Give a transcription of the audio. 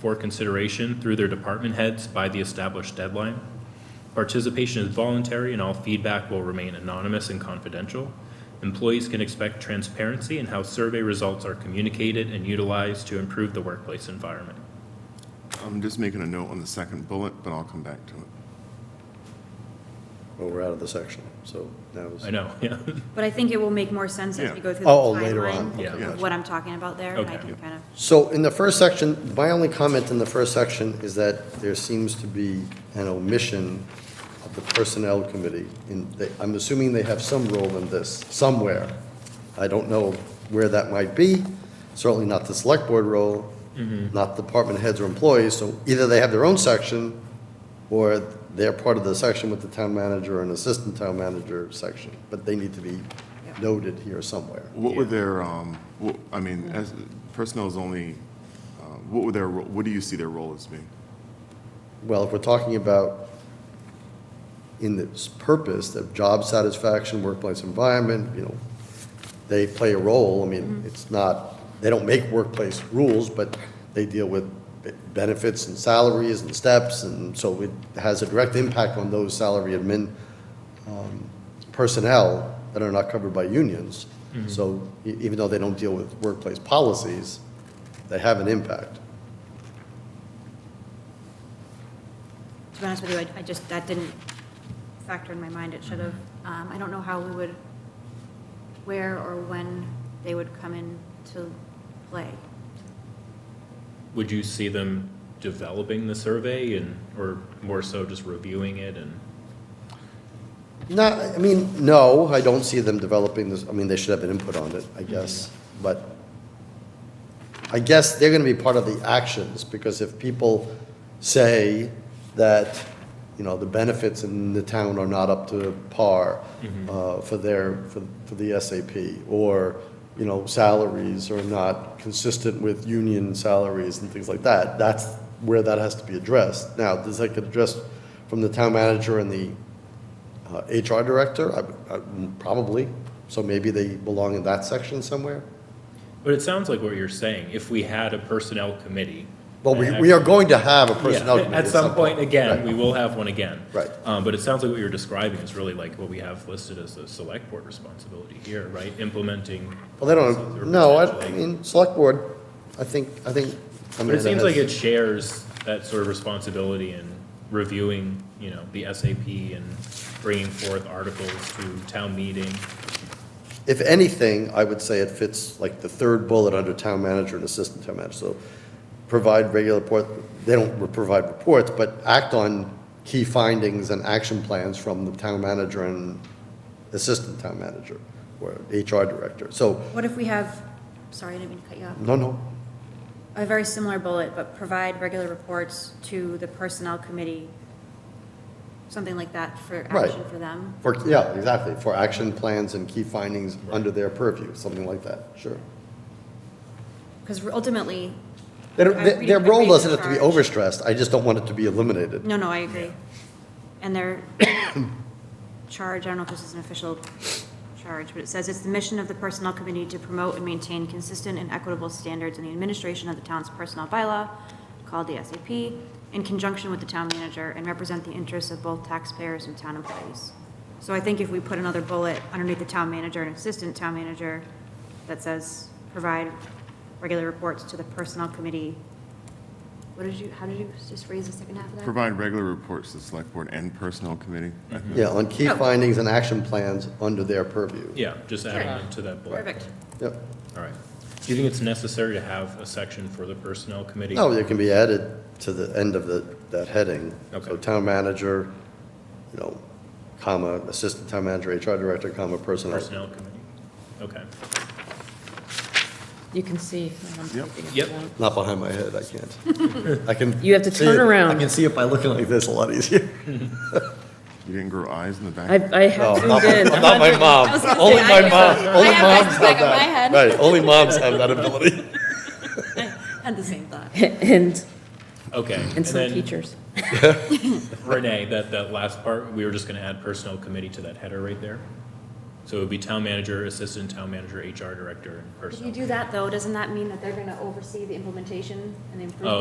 for consideration through their department heads by the established deadline. Participation is voluntary and all feedback will remain anonymous and confidential. Employees can expect transparency in how survey results are communicated and utilized to improve the workplace environment. I'm just making a note on the second bullet, but I'll come back to it. Well, we're out of the section, so that was. I know, yeah. But I think it will make more sense as we Yeah. go through the Oh, oh, later on. timeline Yeah. Okay, of gotcha. what I'm talking about there, and I Okay. can kind of, So in the first section, my only comment in the first section is that there seems to be an omission of the Personnel Committee. In- they- I'm assuming they have some role in this, somewhere. I don't know where that might be, certainly not the Select Board role, Mm-hmm. not department heads or employees, so either they have their own section, or they're part of the section with the town manager and assistant town manager section, but they need to be noted here somewhere. What were their, um, what- I mean, as, personnel is only, uh, what were their, ro- what do you see their role as being? Well, if we're talking about in its purpose of job satisfaction, workplace environment, you know, they play a role. I mean, it's not, they don't make workplace rules, but they deal with be- benefits and salaries and steps, and so it has a direct impact on those salary admin um, personnel that are not covered by unions. So e- even though they don't deal with workplace policies, they have an impact. to be honest with you, I, I just, that didn't factor in my mind, it should have. Um, I don't know how we would, where or when they would come in to play. Would you see them developing the survey and, or more so just reviewing it and? No, I mean, no, I don't see them developing this, I mean, they should have an input on it, I guess, but I guess they're gonna be part of the actions, because if people say that, you know, the benefits in the town are not up to par uh, for their, for, for the SAP, or, you know, salaries are not consistent with union salaries and things like that, that's where that has to be addressed. Now, does that get addressed from the town manager and the uh, HR director, I- I- probably, so maybe they belong in that section somewhere. But it sounds like what you're saying, if we had a personnel committee. Well, we, and- we are going to have a Yeah, personnel committee At some point, again, we Right. will have one again. Right. Um, but it sounds like what you're describing is really like what we have listed as the select board responsibility here, right? Implementing. Well, they policies or don't, no, I, I potentially- mean, select board, I think, I think. But it seems like it shares that sort of responsibility in reviewing, you know, the SAP and bringing forth articles to town meeting. If anything, I would say it fits like the third bullet under town manager and assistant town manager, so provide regular report, they don't re- provide reports, but act on key findings and action plans from the town manager and assistant town manager, or HR director, so, What if we have, sorry, I didn't mean to cut you off. no, no, A very similar bullet, but provide regular reports to the personnel committee, something like that for Right. action for them. For, yeah, exactly, for action plans and key findings under their purview, something like that, sure. Because ultimately, They don't- I'm Their, their reading- I'm role reading the doesn't have to be charge. overstressed, I just don't want it to be eliminated. No, no, I agree. And their charge, I don't know if this is an official charge, but it says it's the mission of the Personnel Committee to promote and maintain consistent and equitable standards in the administration of the town's personnel bylaw, called the SAP, in conjunction with the town manager, and represent the interests of both taxpayers and town employees. So I think if we put another bullet underneath the town manager and assistant town manager that says, provide regular reports to the Personnel Committee, what did you, how did you just raise the second half of that? Provide regular reports to the select board and personnel committee. I think Yeah, on key Oh. findings and action plans under their purview. Yeah, just adding Sure. them to that bullet. Perfect. Yep. All right. Do you think it's necessary to have a section for the personnel committee? No, Oh, it can be added to the end of the, that heading. So Okay. town manager, you know, comma, assistant town manager, HR director, comma, personnel. Personnel committee, okay. You can see. I'm Yep. thinking if you Yep. want. Not behind my head, I can't. I can. You have to see turn it- I around. can see it by looking like this a lot easier. You didn't grow eyes in the back? I, I have No, Oh, not- zoomed in. Not my mom. was gonna Only say, my I- mom, only have eyes moms have back that. of my head. Right, only moms have that ability. Had the same thought. And, Okay. and some then, teachers. Renee, that, that last part, we were just gonna add personnel committee to that header right there. So it would be town manager, assistant town manager, HR director, and If personnel. you do that, though, doesn't that mean that they're gonna oversee the implementation and the improvement? Oh,